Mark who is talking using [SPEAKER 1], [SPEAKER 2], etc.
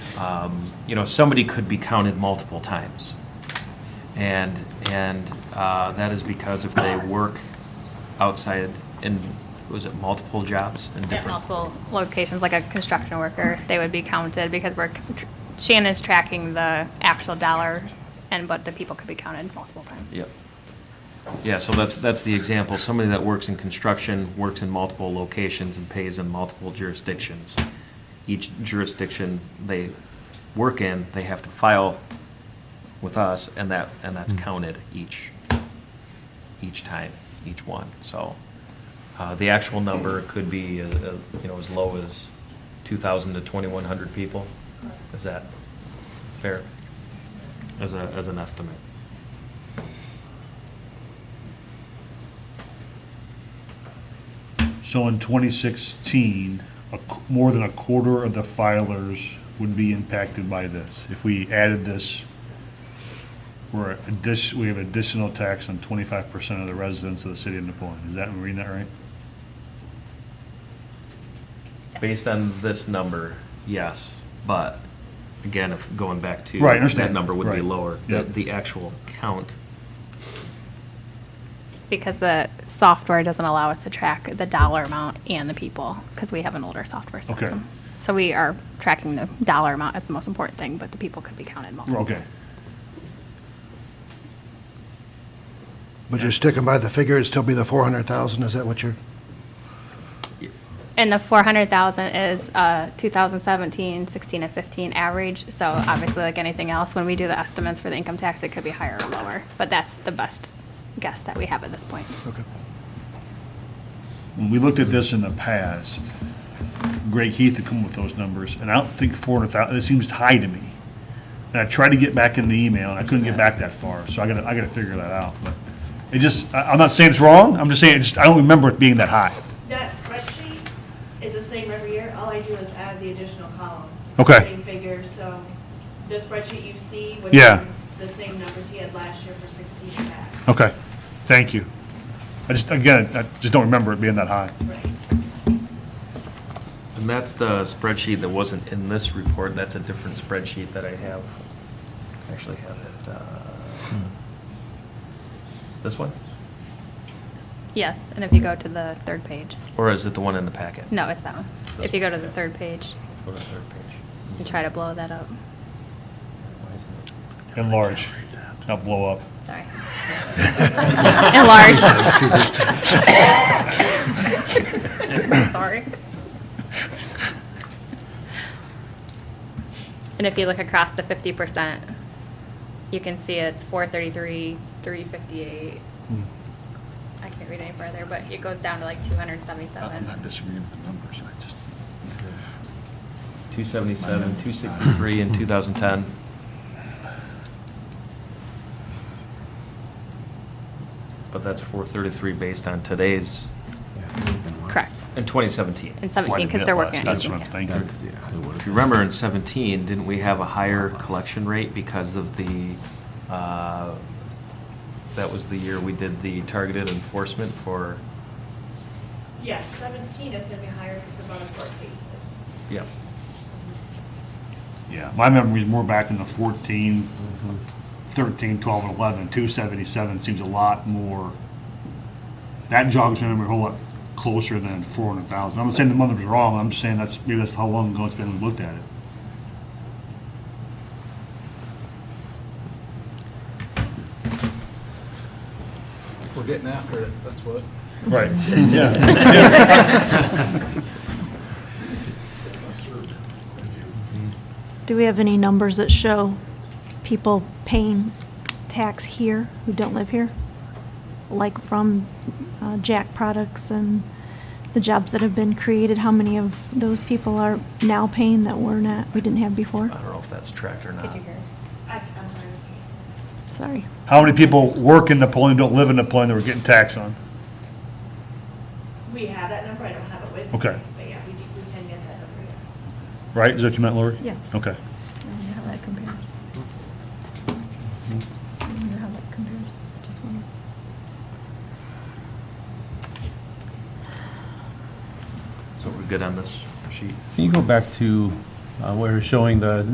[SPEAKER 1] um, you know, somebody could be counted multiple times. And, and uh, that is because if they work outside in, was it multiple jobs in
[SPEAKER 2] At
[SPEAKER 1] different?
[SPEAKER 2] multiple locations, like a construction worker, they would be counted because we're, tr- Shannon's tracking the actual dollar and, but the people could be counted multiple times.
[SPEAKER 1] Yep. Yeah, so that's, that's the example. Somebody that works in construction, works in multiple locations and pays in multiple jurisdictions. Each jurisdiction they work in, they have to file with us and that, and that's counted each, each time, each one. So uh, the actual number could be, uh, uh, you know, as low as 2,000 to 2,100 people. Is that fair? As a, as an estimate?
[SPEAKER 3] So in 2016, a qu- more than a quarter of the filers would be impacted by this. If we added this, we're, addition- we have additional tax on 25% of the residents of the city of Napoleon. Is that, am I reading that right?
[SPEAKER 1] Based on this number, yes, but again, if going back to.
[SPEAKER 3] Right, I understand.
[SPEAKER 1] That number would be
[SPEAKER 3] Right.
[SPEAKER 1] lower,
[SPEAKER 3] Yeah.
[SPEAKER 1] the, the actual count.
[SPEAKER 2] Because the software doesn't allow us to track the dollar amount and the people, because we have an older software
[SPEAKER 3] Okay.
[SPEAKER 2] system. So we are tracking the dollar amount as the most important thing, but the people could be counted multiple.
[SPEAKER 3] Okay.
[SPEAKER 4] But you're sticking by the figure, it'd still be the 400,000, is that what you're,
[SPEAKER 2] And the 400,000 is uh, 2017, 16, and 15 average, so obviously, like anything else, when we do the estimates for the income tax, it could be higher or lower, but that's the best guess that we have at this point.
[SPEAKER 4] okay.
[SPEAKER 3] When we looked at this in the past, Greg Heath had come with those numbers, and I don't think 400,000, it seems high to me. And I tried to get back in the email, and I couldn't get back that far, so I gotta, I gotta figure that out. But It just, I- I'm not saying it's wrong, I'm just saying, it's- I don't remember it being that high.
[SPEAKER 5] That spreadsheet is the same every year. All I do is add the additional column. It's the
[SPEAKER 3] Okay.
[SPEAKER 5] Same figure, so the spreadsheet you see would
[SPEAKER 3] Yeah.
[SPEAKER 5] have the same numbers he had last year for 16 back.
[SPEAKER 3] Okay, thank you. I just, again, I just don't remember it being that high.
[SPEAKER 5] Right.
[SPEAKER 1] And that's the spreadsheet that wasn't in this report, that's a different spreadsheet that I have. I Actually have it, uh,
[SPEAKER 3] Hmm.
[SPEAKER 1] this one?
[SPEAKER 2] Yes, and if you go to the third page,
[SPEAKER 1] Or is it the one in the packet?
[SPEAKER 2] no, it's that one. If you go to the third page
[SPEAKER 1] Let's go to the third page.
[SPEAKER 2] and try to blow that up,
[SPEAKER 1] Why isn't it-
[SPEAKER 3] Enlarge, not blow up.
[SPEAKER 2] sorry. Enlarge. Sorry. And if you look across the 50%, you can see it's 433, 358. I can't read any further, but it goes down to like 277.
[SPEAKER 3] disagreeing with the numbers, I just.
[SPEAKER 1] 277, 263 in 2010. But that's 433 based on today's,
[SPEAKER 2] Correct.
[SPEAKER 1] in 2017.
[SPEAKER 2] In 17, because they're working.
[SPEAKER 3] That's what I'm
[SPEAKER 2] Yeah.
[SPEAKER 3] thinking.
[SPEAKER 1] If you remember in 17, didn't we have a higher collection rate because of the, uh, that was the year we did the targeted enforcement for,
[SPEAKER 5] Yes, 17 is going to be higher because of other court cases.
[SPEAKER 1] yeah.
[SPEAKER 3] Yeah, my memory's more back in the 14, 13, 12, and 11. 277 seems a lot more, that jogs my memory a whole lot closer than 400,000. I'm not saying the number's wrong, I'm just saying that's, maybe that's how long ago it's been we looked at it.
[SPEAKER 6] We're getting after it, that's what.
[SPEAKER 3] Right. Yeah.
[SPEAKER 7] Do we have any numbers that show people paying tax here who don't live here? Like from uh, Jack Products and the jobs that have been created, how many of those people are now paying that we're not, we didn't have
[SPEAKER 1] I
[SPEAKER 7] before?
[SPEAKER 1] don't know if that's tracked or
[SPEAKER 2] Could
[SPEAKER 1] not.
[SPEAKER 2] you hear?
[SPEAKER 5] I- I'm sorry.
[SPEAKER 7] Sorry.
[SPEAKER 3] How many people work in Napoleon, don't live in Napoleon, that we're getting taxed on?
[SPEAKER 5] We have that number. I don't have it with me.
[SPEAKER 3] Okay.
[SPEAKER 5] But yeah, we do- we can get that number, yes.
[SPEAKER 3] Right, is that what you meant, Lori?
[SPEAKER 8] Yeah.
[SPEAKER 3] Okay.
[SPEAKER 8] I wonder how that compares. I wonder how that compares, just wonder.
[SPEAKER 1] So we're good on this sheet?
[SPEAKER 9] Can you go back to uh, where we're showing the